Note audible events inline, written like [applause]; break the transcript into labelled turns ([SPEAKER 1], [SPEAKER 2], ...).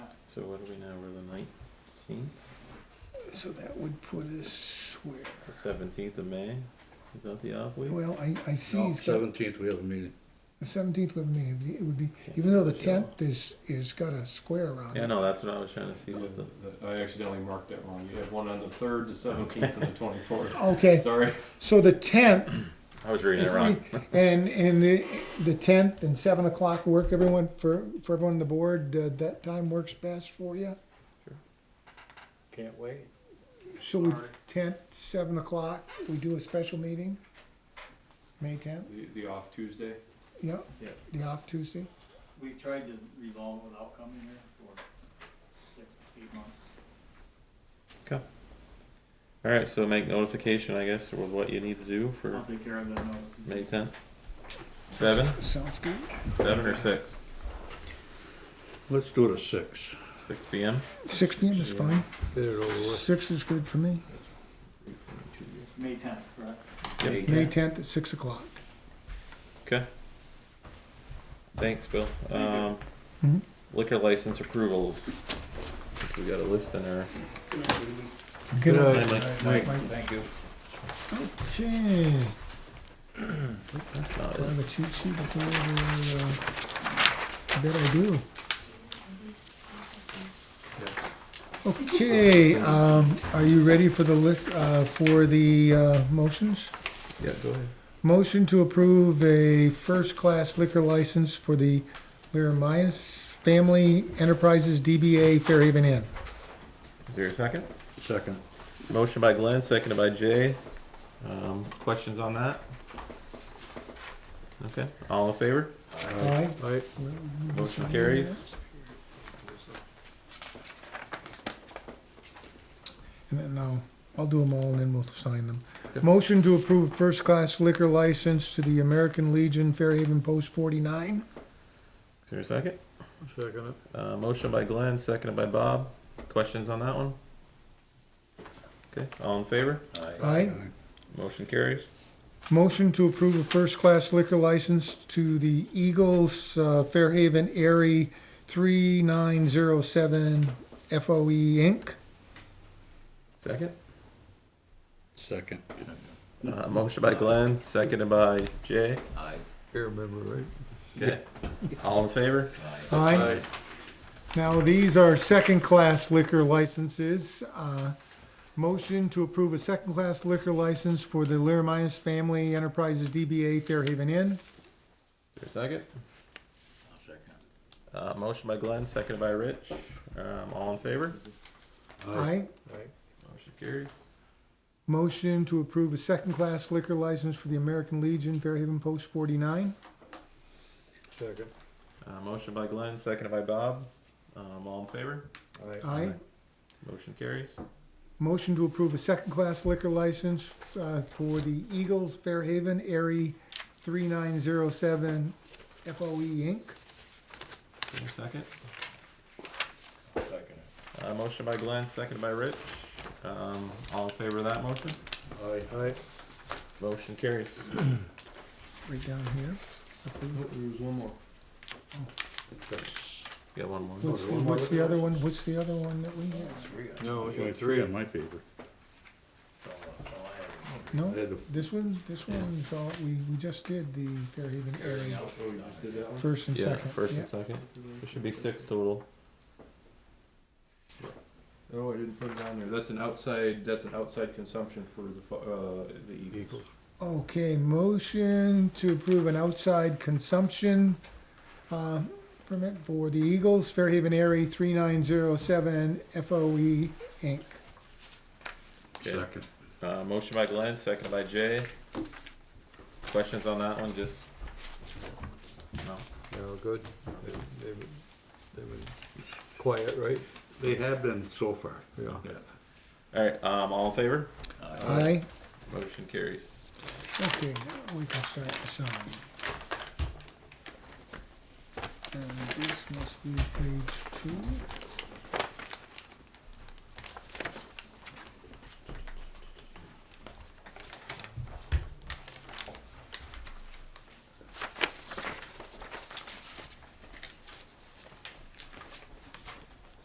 [SPEAKER 1] So what are we now, we're the nineteenth,
[SPEAKER 2] So that would put us where?
[SPEAKER 1] the seventeenth of May? Is that the off week?
[SPEAKER 2] Well, I, I see he's got,
[SPEAKER 3] Seventeenth, we have a meeting.
[SPEAKER 2] the seventeenth would mean, it'd be- it would be, even though the
[SPEAKER 1] Yeah.
[SPEAKER 2] tenth is, is got a square around
[SPEAKER 1] Yeah,
[SPEAKER 2] it.
[SPEAKER 1] no, that's what I was trying to see
[SPEAKER 4] Yeah,
[SPEAKER 1] what the,
[SPEAKER 4] th- Uh, I accidentally marked that wrong. You have one on the third, the seventeenth, and the twenty-fourth.
[SPEAKER 2] [laughs] Okay,
[SPEAKER 4] Sorry.
[SPEAKER 2] so the tenth,
[SPEAKER 1] I was reading it [laughs] wrong.
[SPEAKER 2] if we- and, and the- the tenth and seven o'clock work, everyone, for, for everyone on the board, uh, that time works best for you?
[SPEAKER 5] Can't wait.
[SPEAKER 2] So we, tenth, seven o'clock, we do a special meeting? May tenth,
[SPEAKER 4] The, the off Tuesday.
[SPEAKER 2] yeah,
[SPEAKER 5] Yeah.
[SPEAKER 2] the off Tuesday?
[SPEAKER 5] We've tried to resolve without coming here for six, eight months.
[SPEAKER 1] Alright, so make notification, I guess, with what you need to do
[SPEAKER 5] I'll
[SPEAKER 1] for
[SPEAKER 5] take care of that notice.
[SPEAKER 1] May tenth? Seven,
[SPEAKER 2] Sounds good.
[SPEAKER 1] seven or six?
[SPEAKER 3] Let's do it at six.
[SPEAKER 1] Six P M?
[SPEAKER 2] Six P M is fine,
[SPEAKER 3] Get it over with.
[SPEAKER 2] six is good for me,
[SPEAKER 5] May tenth, correct?
[SPEAKER 1] Yep.
[SPEAKER 2] May tenth at six o'clock.
[SPEAKER 1] Okay. Thanks, Bill. Um,
[SPEAKER 2] Mhm.
[SPEAKER 1] liquor license approvals. We got a list in our.
[SPEAKER 2] Good night.
[SPEAKER 3] Mike.
[SPEAKER 5] Thank you.
[SPEAKER 2] Okay,
[SPEAKER 1] that's not
[SPEAKER 2] do I
[SPEAKER 1] it.
[SPEAKER 2] have a cheat sheet to go over, uh, I bet I do. Okay, um, are you ready for the lick, uh, for the, uh, motions?
[SPEAKER 1] Yeah, go ahead.
[SPEAKER 2] Motion to approve a first-class liquor license for the Laramias Family Enterprises DBA Fairhaven Inn.
[SPEAKER 1] Is there a second?
[SPEAKER 3] Second.
[SPEAKER 1] Motion by Glenn, seconded by Jay. Um, questions on that? Okay, all in favor?
[SPEAKER 2] Aye.
[SPEAKER 3] Aye.
[SPEAKER 2] Mm-hmm.
[SPEAKER 1] Motion carries.
[SPEAKER 2] And then I'll, I'll do them all and then we'll sign them.
[SPEAKER 1] Yep.
[SPEAKER 2] Motion to approve first-class liquor license to the American Legion Fairhaven Post forty-nine.
[SPEAKER 1] Is there a second?
[SPEAKER 3] Second it.
[SPEAKER 1] Uh, motion by Glenn, seconded by Bob. Questions on that one? Okay, all in favor?
[SPEAKER 2] Aye.
[SPEAKER 1] Motion carries.
[SPEAKER 2] Motion to approve a first-class liquor license to the Eagles uh, Fairhaven Airy three nine zero seven FOE Inc.
[SPEAKER 1] Second?
[SPEAKER 3] Second.
[SPEAKER 1] Uh, motion by Glenn, seconded by Jay.
[SPEAKER 3] You remember, right?
[SPEAKER 1] Okay, all in favor?
[SPEAKER 2] Aye. Now, these are second-class liquor licenses. Uh, Motion to approve a second-class liquor license for the Laramias Family Enterprises DBA Fairhaven Inn.
[SPEAKER 1] Is there a second? Uh, motion by Glenn, seconded by Rich. Um, all in favor?
[SPEAKER 2] Aye.
[SPEAKER 1] Motion carries.
[SPEAKER 2] Motion to approve a second-class liquor license for the American Legion Fairhaven Post 49.
[SPEAKER 3] Second.
[SPEAKER 1] Uh, motion by Glenn, seconded by Bob. Um, all in favor?
[SPEAKER 2] Aye.
[SPEAKER 1] Motion carries.
[SPEAKER 2] Motion to approve a second-class liquor license uh, for the Eagles Fairhaven Airy 3907 FOE E Inc.
[SPEAKER 1] Is there a second? Uh, motion by Glenn, seconded by Rich. Um, all in favor of that motion?
[SPEAKER 3] Aye. Aye.
[SPEAKER 1] Motion carries.
[SPEAKER 2] Right down here. Approve.
[SPEAKER 4] There was one more.
[SPEAKER 3] That's-
[SPEAKER 1] Got one more.
[SPEAKER 2] What's, the- what's the other one, what's the other one that we have?
[SPEAKER 4] No,
[SPEAKER 3] That's only three on my paper. I
[SPEAKER 2] No,
[SPEAKER 3] had to-
[SPEAKER 2] this one, this one's all, we, we just did the Fairhaven area, first and
[SPEAKER 1] Yeah,
[SPEAKER 2] second.
[SPEAKER 1] first
[SPEAKER 2] yeah.
[SPEAKER 1] and second. There should be six total.
[SPEAKER 4] Oh, I didn't put it on there. That's an outside, that's an outside consumption for the, fu- uh, the Eagles.
[SPEAKER 2] Okay, motion to approve an outside consumption, um, permit for the Eagles, Fairhaven Airy, three nine zero seven FOE Inc.
[SPEAKER 1] Okay.
[SPEAKER 3] Second.
[SPEAKER 1] Uh, motion by Glenn, seconded by Jay. Questions on that one, just? No.
[SPEAKER 6] No, good. They, they were, they were quiet, right?
[SPEAKER 3] They have been so far.
[SPEAKER 6] Yeah.
[SPEAKER 1] Alright, um, all in favor?
[SPEAKER 2] Aye.
[SPEAKER 1] Motion carries.
[SPEAKER 2] Okay, now we can start the sign. And this must be page two.